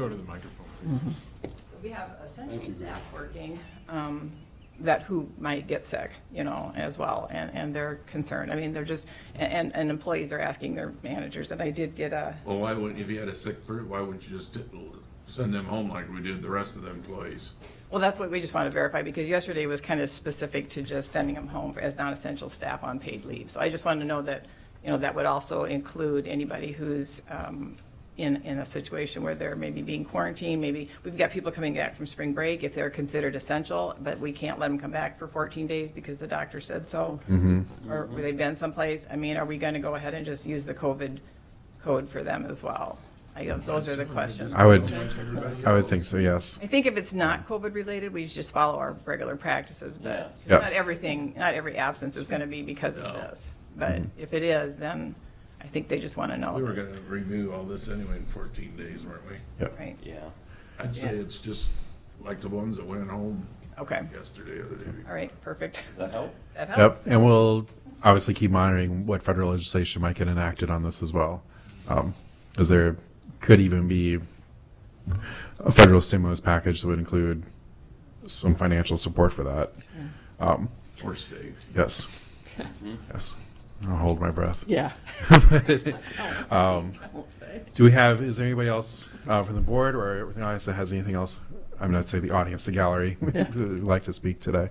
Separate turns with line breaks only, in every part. Go to the microphone.
So we have essential staff working, um, that who might get sick, you know, as well, and, and they're concerned. I mean, they're just, and, and employees are asking their managers, and I did get a,
Well, why wouldn't, if you had a sick person, why wouldn't you just send them home like we did the rest of the employees?
well, that's what we just want to verify, because yesterday was kind of specific to just sending them home as non-essential staff on paid leave. So I just wanted to know that, you know, that would also include anybody who's, um, in, in a situation where they're maybe being quarantined, maybe, we've got people coming back from spring break, if they're considered essential, but we can't let them come back for 14 days because the doctor said so. Or they've been someplace, I mean, are we going to go ahead and just use the COVID code for them as well? I guess those are the questions.
I would, I would think so, yes.
I think if it's not COVID-related, we just follow our regular practices, but
Yeah.
not everything, not every absence is going to be because of this. But
Mm-hmm.
if it is, then I think they just want to
We were
know,
gonna renew all this anyway in fourteen days, weren't we?
right?
Yeah.
I'd say it's just like the ones that went home
Okay,
yesterday or the day
all right, perfect.
Does that help?
That helps.
Yep, and we'll obviously keep monitoring what federal legislation might get enacted on this as well. Um, As there could even be a federal stimulus package that would include some financial support for that. Um,
before, or stayed.
Yes, yes. I'll hold my breath.
Yeah.
Um, Do we have, is there anybody else uh, from the board or everything else that has anything else? I'm not saying the audience, the gallery, who'd like to speak today.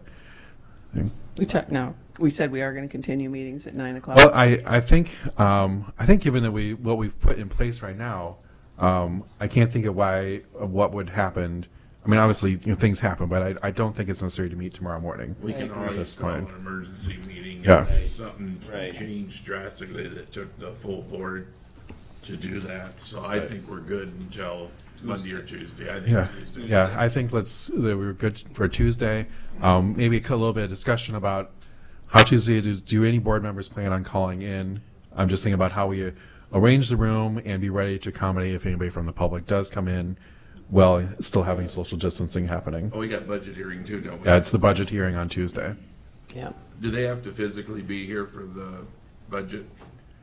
We talked, no, we said we are going to continue meetings at nine o'clock.
Well, I, I think um, I think given that we what we've put in place right now, um, I can't think of why of what would happen. I mean, obviously, you know, things happen, but I, I don't think it's necessary to meet tomorrow morning.
We can
At
always
this
call an
point,
emergency meeting
Yeah.
if something
Right.
changed drastically that took the full board to do that. So I think we're good until Monday or Tuesday. I
yeah,
think Tuesday.
yeah. I think let's that we're good for Tuesday. Um, maybe a little bit of discussion about how Tuesday do, do any board members plan on calling in. I'm just thinking about how we arrange the room and be ready to accommodate if anybody from the public does come in, while still having social distancing happening.
Oh, we got budget hearing too, don't we?
Yeah, it's the budget hearing on Tuesday.
Yeah.
Do they have to physically be here for the budget?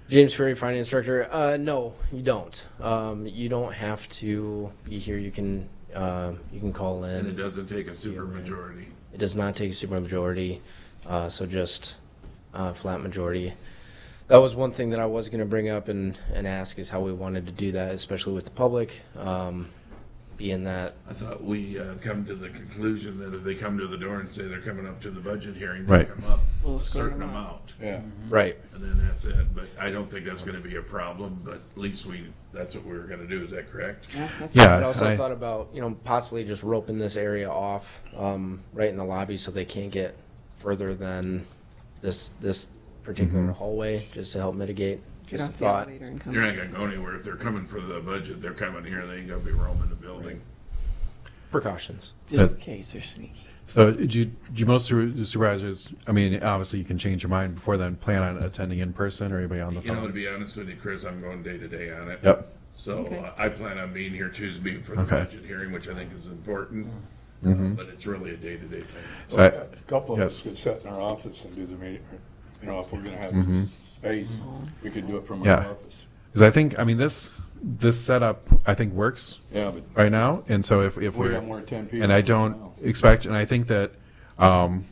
James Perry, finance director. Uh, no, you don't. Um, you don't have to be here. You can uh, you can call
And it
in.
doesn't take a supermajority.
It does not take a supermajority, uh, so just uh, flat majority. That was one thing that I was going to bring up and, and ask is how we wanted to do that, especially with the public, um, being that
I thought we uh, come to the conclusion that if they come to the door and say they're coming up to the budget hearing, they
Right.
come up
We'll
a
escort
certain
them
amount. Yeah.
right.
And then that's it. But I don't think that's going to be a problem, but at least we, that's what we were going to do. Is that correct?
Yeah, that's-
Yeah,
But I also
I-
thought about, you know, possibly just roping this area off, um, right in the lobby so they can't get further than this, this particular hallway, just to help mitigate,
Get
just a
off the
thought.
elevator and come.
You're not going to go anywhere. If they're coming for the budget, they're coming here. They ain't going to be roaming the building.
Precautions.
Just in case they're sneaky.
So do you, do you most su- supervisors, I mean, obviously you can change your mind before then, plan on attending in person or anybody on the
You know, to
phone?
be honest with you, Chris, I'm going day to day on it.
Yep,
So
Okay.
uh, I plan on being here Tuesday for the
Okay. Mm-hmm.
budget hearing, which I think is important. uh, But it's really a day-to-day thing.
so, I-
A couple of us
Yes.
could sit in our office and do the meeting, or, you know, if we're gonna have space, we could do it from our
Yeah.
office.
'cause I think, I mean, this, this setup, I think works
Yeah, but
right now, and so if, if
we
we're,
got more than ten people.
and I
now.
don't expect, and I think that, um,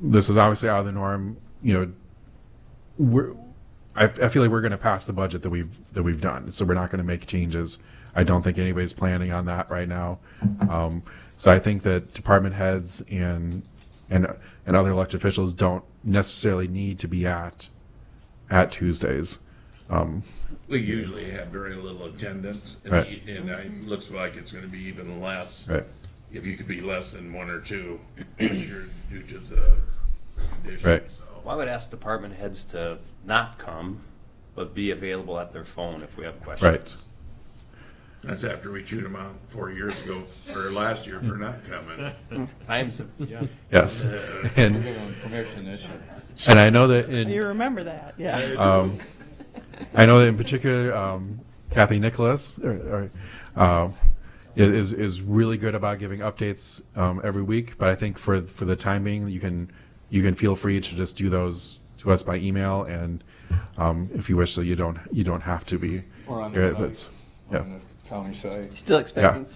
this is obviously out of the norm, you know, we're, I, I feel like we're gonna pass the budget that we've, that we've done, so we're not gonna make changes. I don't think anybody's planning on that right now. Um, so I think that department heads and, and, and other elected officials don't necessarily need to be at, at Tuesdays. Um,
We usually have very little attendance, and
Right.
e- and I- it looks like it's gonna be even less.
right,
If you could be less than one or two, this year due to the condition,
Right.
so.
Well, I would ask department heads to not come, but be available at their phone if we have questions.
right.
That's after we chewed them out four years ago, or last year for not coming.
Times have,
Yes. And,
Give them permission this year.
and I know that in.
You remember that, yeah.
Um, I know that in particular, um, Kathy Nicholas or, or, um, i- is is really good about giving updates um, every week. But I think for for the time being, you can you can feel free to just do those to us by email, and um, if you wish, so you don't you don't have to be.
Or on
here,
the
but it's-
site,
yeah.
on county side.
Still expecting